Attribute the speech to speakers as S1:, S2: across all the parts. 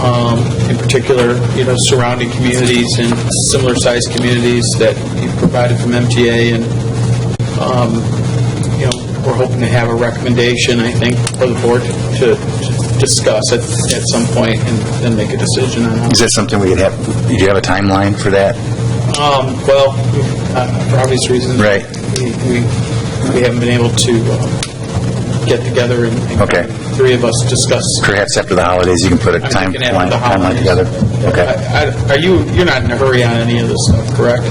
S1: um, particular, you know, surrounding communities and similar-sized communities that you provided from MTA, and, um, you know, we're hoping to have a recommendation, I think, for the board to to discuss at at some point and then make a decision on how.
S2: Is that something we could have, do you have a timeline for that?
S1: Um, Well, uh, for obvious reasons.
S2: Right.
S1: We, we- we haven't been able to uh, get together and. and
S2: Okay.
S1: Three of us discuss.
S2: Perhaps after the holidays, you can put a
S1: I'm thinking after
S2: timeline
S1: the
S2: timeline
S1: holidays.
S2: together? Okay.
S1: I- I- Are you, you're not in a hurry on any of this stuff, correct?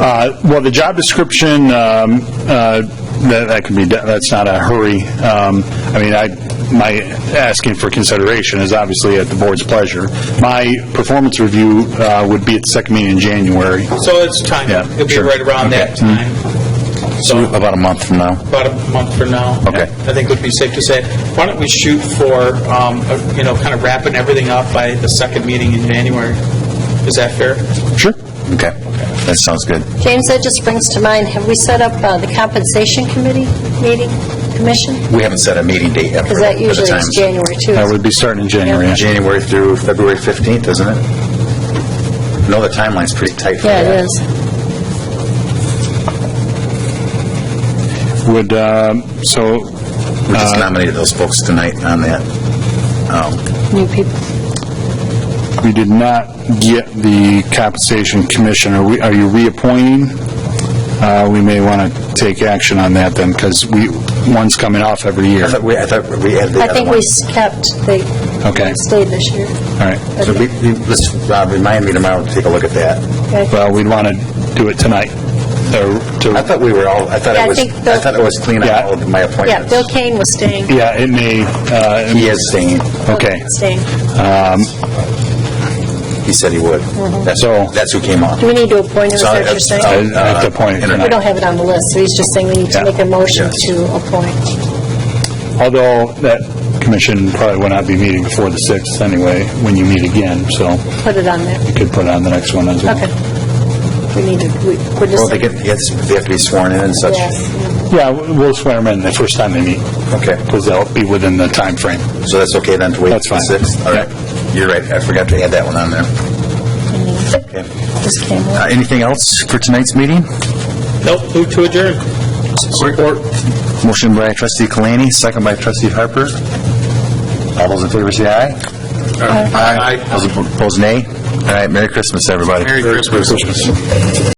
S3: Uh, Well, the job description, um, uh, that that could be, done. that's not a hurry. Um, I mean, I, my asking for consideration is obviously at the board's pleasure. My performance review uh, would be at the second meeting in January.
S1: So it's time,
S3: Yeah,
S1: it'll be
S3: sure.
S1: right around that time. So
S2: About a month from now?
S1: about a month from now.
S2: Okay.
S1: I think would be safe to say. Why don't we shoot for, um, a- you know, kind of wrapping everything up by the second meeting in January? Is that fair?
S3: Sure.
S2: Okay. That sounds good.
S4: James, that just brings to mind, have we set up uh, the compensation committee meeting, commission?
S2: We haven't set a meeting date yet for
S4: Because
S2: the
S4: that
S2: for the
S4: usually is
S2: times.
S4: January, too.
S3: That would be starting in January. yeah.
S2: January through February 15th, isn't it? No, the timeline's pretty tight for
S4: Yeah,
S2: that.
S4: it is.
S3: Would, um, so,
S2: We just nominated those folks tonight on that. Um,
S4: New people.
S3: we did not get the compensation commission. Are we, are you reappointing? Uh, We may want to take action on that then, because we, one's coming off every year.
S2: I thought we, I thought we had the
S4: I
S2: other
S4: think
S2: one.
S4: we kept, they
S3: Okay.
S4: stayed this year.
S3: All right.
S2: So we, we- let's, Rob, remind me tomorrow to take a look at that.
S4: Okay.
S3: Well, we'd want to do it tonight. or
S2: I
S3: to-
S2: thought we were all, I thought
S4: Yeah, I
S2: it was,
S4: think
S2: I
S4: the-
S2: thought it was clean on
S3: Yeah.
S2: all of my
S4: Yeah,
S2: appointments.
S4: Bill Kane was staying.
S3: Yeah, it may, uh,
S2: He is staying.
S3: okay.
S4: Staying.
S2: He said he would. That's,
S3: So-
S2: that's who came on.
S4: Do we need to appoint him, is
S2: So uh,
S4: that what you're
S2: it's-
S4: saying?
S3: I- At the point,
S4: We don't have it on the list, so he's just saying we need to
S3: Yeah.
S4: make a motion
S2: Yes.
S4: to appoint.
S3: although that commission probably will not be meeting before the 6th anyway, when you meet again, so
S4: Put it on there.
S3: you could put on the next one as well.
S4: Okay. We need to, we- we're
S2: Well,
S4: just,
S2: they get, they get- they have to be sworn in and such.
S4: yes.
S3: Yeah, w- we'll swear them in the first time they meet,
S2: Okay,
S3: because they'll be within the time frame.
S2: so that's okay then to wait
S3: That's
S2: till the
S3: fine.
S2: 6th? All right, you're right, I forgot to add that one on there. Mm-hmm. Okay.
S4: Just came in.
S2: Uh, Anything else for tonight's meeting?
S1: Nope, move to adjourn.
S2: Support. Motion by trustee Kalani, second by trustee Harper. All those in favor say aye. Aye. Those opposed, nay. All right, Merry Christmas, everybody.
S1: Merry Christmas.